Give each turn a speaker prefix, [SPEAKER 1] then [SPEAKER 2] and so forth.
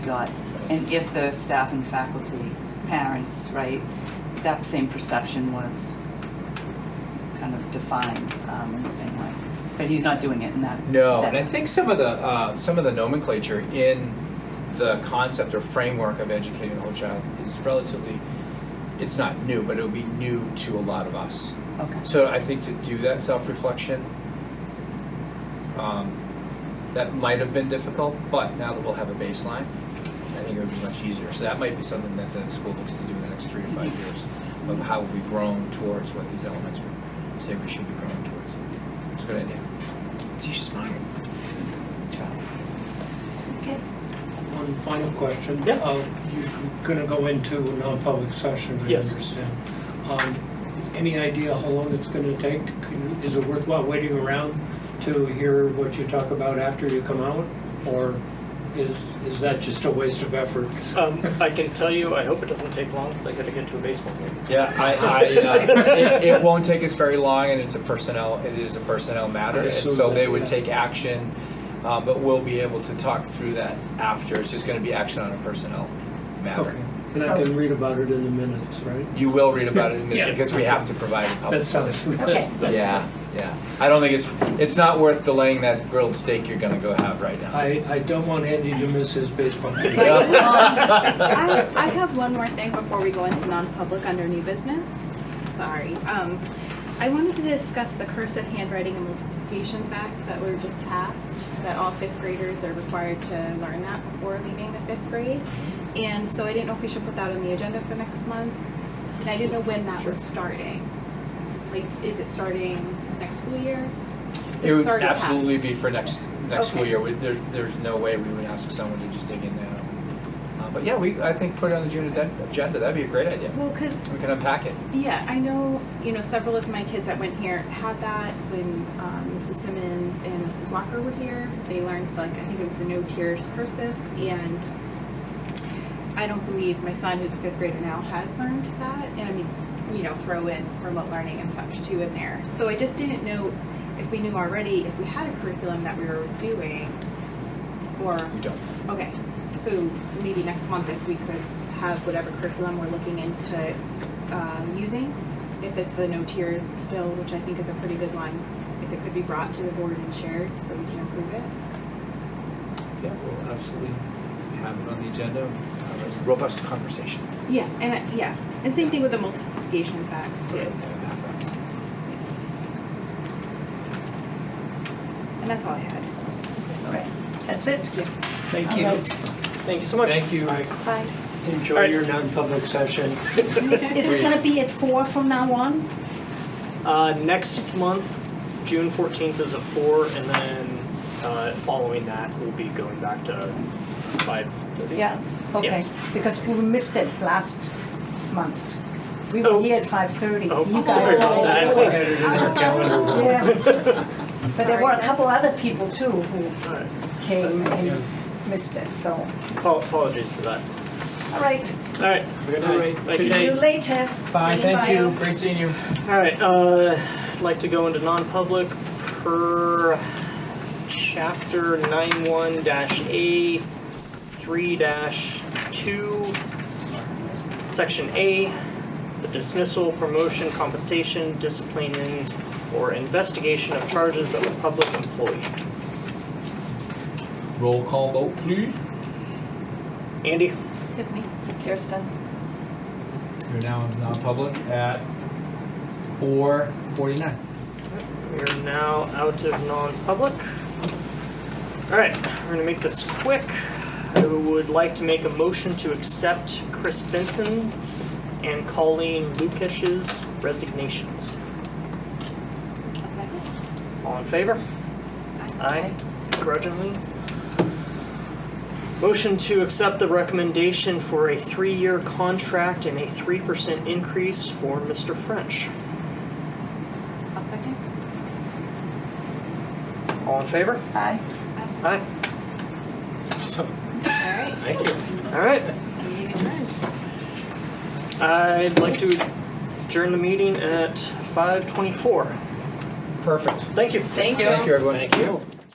[SPEAKER 1] got, and if the staff and faculty, parents, right, that same perception was kind of defined um, in the same way. But he's not doing it in that.
[SPEAKER 2] No,
[SPEAKER 1] that
[SPEAKER 2] and I
[SPEAKER 1] sense.
[SPEAKER 2] think some of the, uh, some of the nomenclature in the concept or framework of educating the whole child is relatively, it's not new, but it'll be new to a lot of us.
[SPEAKER 1] Okay,
[SPEAKER 2] So I think to do that self-reflection, um, that might have been difficult, but now that we'll have a baseline, I think it would be much easier. So that might be something that the school looks to do in the next three to five years, of how we've grown towards what these elements would say we should be growing towards. It's a good idea. She's smart.
[SPEAKER 3] One final question.
[SPEAKER 4] Yeah.
[SPEAKER 3] Uh, You're gonna go into a non-public session, I
[SPEAKER 4] Yes.
[SPEAKER 3] understand. Um, Any idea how long it's gonna take? Can- Is it worthwhile waiting around to hear what you talk about after you come out? Or is, is that just a waste of effort?
[SPEAKER 4] Um, I can tell you, I hope it doesn't take long, because I gotta get to a baseball game.
[SPEAKER 2] Yeah, I, I, uh, it, it won't take us very long, and it's a personnel, it is a personnel matter,
[SPEAKER 3] I
[SPEAKER 2] and
[SPEAKER 3] assume
[SPEAKER 2] so
[SPEAKER 3] that,
[SPEAKER 2] they would
[SPEAKER 3] yeah.
[SPEAKER 2] take action, uh, but we'll be able to talk through that after, it's just gonna be action on a personnel
[SPEAKER 3] Okay,
[SPEAKER 2] matter.
[SPEAKER 3] and I can read about it in the minutes, right?
[SPEAKER 2] You will read about it in this,
[SPEAKER 4] Yes.
[SPEAKER 2] because we have to provide a public.
[SPEAKER 3] That sounds.
[SPEAKER 5] Okay.
[SPEAKER 2] Yeah, yeah, I don't think it's, it's not worth delaying that grilled steak you're gonna go have right now.
[SPEAKER 3] I, I don't want Andy to miss his baseball game.
[SPEAKER 5] Right.
[SPEAKER 6] I I have one more thing before we go into non-public under new business. Sorry. Um, I wanted to discuss the cursive handwriting and multiplication facts that were just passed, that all fifth graders are required to learn that before leaving the fifth grade. And so I didn't know if we should put that on the agenda for next month. And I didn't know when that was starting. Like, is it starting next school year?
[SPEAKER 2] It would
[SPEAKER 6] It's already
[SPEAKER 2] absolutely
[SPEAKER 6] passed.
[SPEAKER 2] be for next, next school
[SPEAKER 6] Okay.
[SPEAKER 2] year, We- there's, there's no way we would ask someone to just dig in now. Uh, But yeah, we, I think put it on the June aden- agenda, that'd be a great idea.
[SPEAKER 6] Well, because
[SPEAKER 2] We can unpack it.
[SPEAKER 6] Yeah, I know, you know, several of my kids that went here had that when um, Mrs. Simmons and Mrs. Walker were here. They learned, like, I think it was the no tears cursive. And I don't believe my son, who's a fifth grader now, has learned that. And I mean, you know, throw in remote learning and such too in there. So I just didn't know if we knew already if we had a curriculum that we were doing or
[SPEAKER 2] We don't.
[SPEAKER 6] Okay, so maybe next month if we could have whatever curriculum we're looking into um, using, if it's the no tiers still, which I think is a pretty good one, if it could be brought to the board and shared so we can improve it.
[SPEAKER 2] Yeah, we'll absolutely have it on the agenda. Have a Robust conversation.
[SPEAKER 6] Yeah, and I, yeah, and same thing with the multiplication facts too. And that's all I had.
[SPEAKER 5] All right, that's it.
[SPEAKER 4] Thank
[SPEAKER 5] All right.
[SPEAKER 4] Thank you so much.
[SPEAKER 2] Thank you.
[SPEAKER 6] Bye.
[SPEAKER 3] Enjoy your non-public session.
[SPEAKER 5] Is is it gonna be at four from now on?
[SPEAKER 4] Uh, next month, June fourteenth is a four, and then, uh, following that, we'll be going back to five thirty.
[SPEAKER 5] Yeah, okay,
[SPEAKER 4] Yes.
[SPEAKER 5] because we missed it last month. We
[SPEAKER 4] Oh.
[SPEAKER 5] were here at five thirty.
[SPEAKER 4] Oh, sorry
[SPEAKER 5] You guys
[SPEAKER 4] about
[SPEAKER 5] all.
[SPEAKER 4] that.
[SPEAKER 3] I had it in our calendar.
[SPEAKER 5] Yeah, but there were a
[SPEAKER 6] Sorry.
[SPEAKER 5] couple other people too who
[SPEAKER 4] All right,
[SPEAKER 5] came
[SPEAKER 3] Yeah.
[SPEAKER 5] and missed it, so,
[SPEAKER 4] Apo- apologies for that.
[SPEAKER 5] all right.
[SPEAKER 4] All right.
[SPEAKER 2] Good
[SPEAKER 4] All
[SPEAKER 2] night.
[SPEAKER 4] right, thank
[SPEAKER 5] See you
[SPEAKER 4] you.
[SPEAKER 5] later.
[SPEAKER 2] Bye, thank
[SPEAKER 5] Bye.
[SPEAKER 2] you. Great seeing you.
[SPEAKER 4] All right, uh, I'd like to go into non-public per chapter nine one dash A, three dash two, section A, the dismissal, promotion, compensation, disciplining, or investigation of charges of a public employee.
[SPEAKER 2] Roll call vote, please.
[SPEAKER 4] Andy?
[SPEAKER 6] Tiffany?
[SPEAKER 5] Kirsten.
[SPEAKER 2] You're now in non-public at four forty-nine.
[SPEAKER 4] We're now out of non-public. Alright, we're gonna make this quick. I would like to make a motion to accept Chris Benson's and Colleen Lukash's resignations.
[SPEAKER 6] A second?
[SPEAKER 4] All in favor? Aye. Begrudgingly. Motion to accept the recommendation for a three-year contract and a three percent increase for Mr. French.
[SPEAKER 6] A second?
[SPEAKER 4] All in favor?
[SPEAKER 5] Aye.
[SPEAKER 4] Aye.
[SPEAKER 6] All right,
[SPEAKER 4] Thank you. Alright.
[SPEAKER 6] meeting adjourned.
[SPEAKER 4] I'd like to adjourn the meeting at five twenty-four.
[SPEAKER 2] Perfect.
[SPEAKER 4] Thank you.
[SPEAKER 2] Thank you, everyone. Thank you.